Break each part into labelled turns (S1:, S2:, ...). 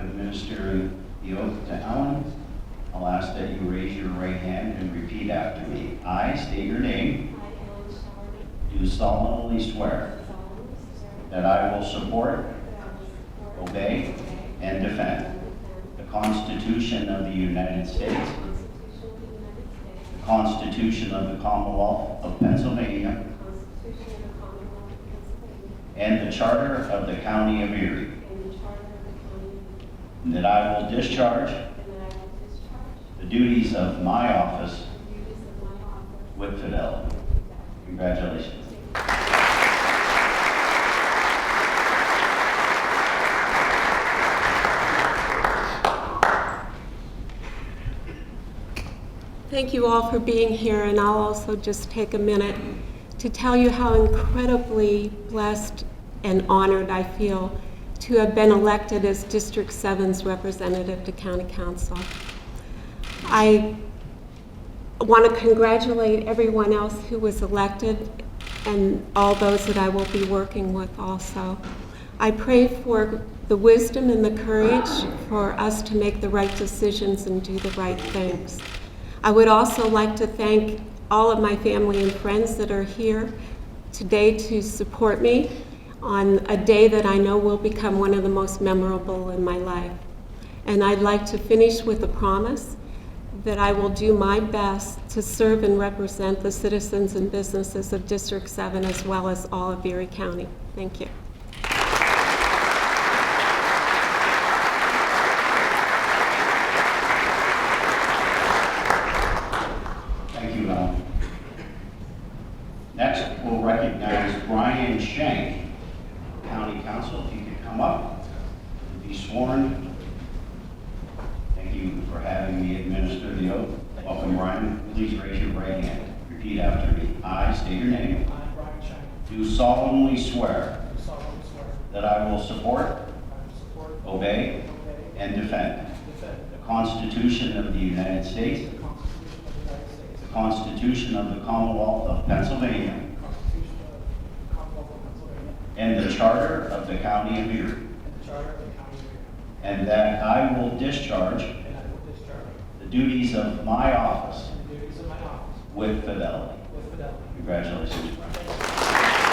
S1: administering the oath to Ellen, I'll ask that you raise your right hand and repeat after me. I state your name,
S2: I, Ellen Sharman,
S1: do solemnly swear
S2: solemnly swear
S1: that I will support
S2: that I will support.
S1: Obey. and defend
S2: And defend
S1: the Constitution of the United States,
S2: the Constitution of the United States,
S1: the Constitution of the Commonwealth of Pennsylvania,
S2: the Constitution of the Commonwealth of Pennsylvania,
S1: and the Charter of the County of Erie,
S2: and
S1: and
S2: the Charter of the County, of Erie,
S1: that I will discharge
S2: and that I will discharge
S1: the duties of my office
S2: the duties of my office
S1: with fidelity.
S2: with fidelity.
S1: Congratulations.
S2: Thank you all for being here, and I'll also just take a minute to tell you how incredibly blessed and honored I feel to have been elected as District 7's representative to County Council. I want to congratulate everyone else who was elected and all those that I will be working with also. I pray for the wisdom and the courage for us to make the right decisions and do the right things. I would also like to thank all of my family and friends that are here today to support me on a day that I know will become one of the most memorable in my life. And I'd like to finish with a promise that I will do my best to serve and represent the citizens and businesses of District 7 as well as all of Erie County. Thank you.
S1: Thank you, Ellen. Next, we'll recognize Brian Shank, County Council, if you could come up and be sworn. Thank you for having me administer the oath. Welcome, Brian. Please raise your right hand. Repeat after me. I state your name.
S3: I, Brian Shank,
S1: Do solemnly swear
S3: do solemnly swear
S1: that I will support,
S3: that I will support,
S1: obey,
S3: obey,
S1: and defend
S3: and defend
S1: the Constitution of the United States,
S3: the Constitution of the United States,
S1: the Constitution of the Commonwealth of Pennsylvania,
S3: the Constitution of the Commonwealth of Pennsylvania,
S1: And the Charter of the County of Erie.
S3: and the Charter of the County of
S1: And that I will discharge
S3: Erie, and I will discharge
S1: the duties of my office
S3: the duties of my office
S1: with fidelity.
S3: with fidelity.
S1: Congratulations.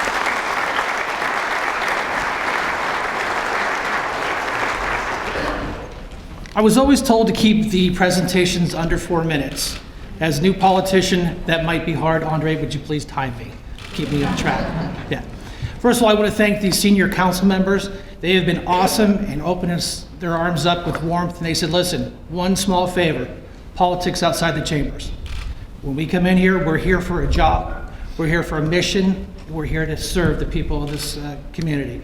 S4: I was always told to keep the presentations under four minutes. As a new politician, that might be hard. Andre, would you please time me? Keep me on track. Yeah. First of all, I want to thank the senior council members. They have been awesome and opened us- their arms up with warmth, and they said, "Listen, one small favor, politics outside the chambers. When we come in here, we're here for a job, we're here for a mission, we're here to serve the people of this uh, community.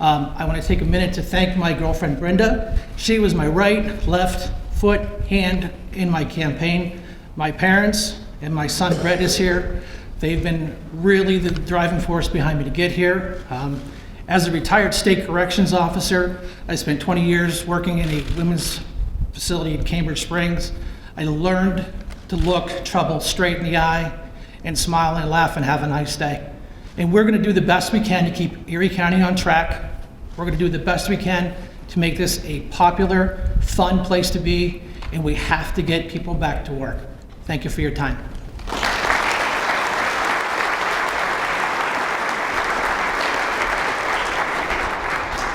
S4: Um, I want to take a minute to thank my girlfriend Brenda. She was my right, left, foot, hand in my campaign. My parents and my son Brett is here. They've been really the driving force behind me to get here. Um, As a retired state corrections officer, I spent 20 years working in a women's facility in Cambridge Springs. I learned to look trouble straight in the eye and smile and laugh and have a nice day. And we're going to do the best we can to keep Erie County on track. We're going to do the best we can to make this a popular, fun place to be, and we have to get people back to work. Thank you for your time.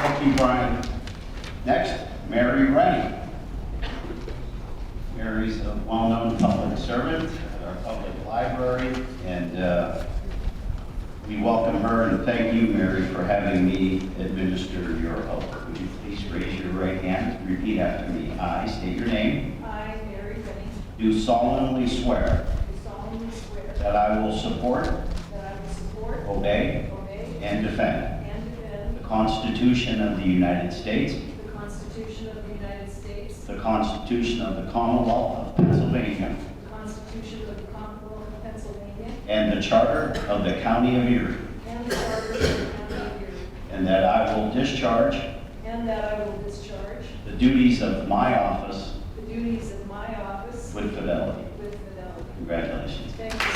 S1: Thank you, Brian. Next, Mary Rennie. Mary's a well-known public servant at our public library, and uh, we welcome her and thank you, Mary, for having me administer your oath. Would you please raise your right hand, repeat after me. I state your name.
S5: I, Mary Benning,
S1: Do solemnly swear
S5: do solemnly swear
S1: That I will support,
S5: that I will support,
S1: obey,
S5: obey,
S1: and defend
S5: and
S1: the
S5: defend
S1: Constitution of the United States,
S5: the Constitution of the United States,
S1: the Constitution of the Commonwealth of Pennsylvania,
S5: the Constitution of the Commonwealth of Pennsylvania,
S1: and the Charter of the County of Erie,
S5: and the Charter of the County of Erie,
S1: and that I will discharge
S5: and that I will discharge
S1: the duties of my office
S5: the duties of my office
S1: with fidelity.
S5: with fidelity.
S1: Congratulations.
S5: Thank you.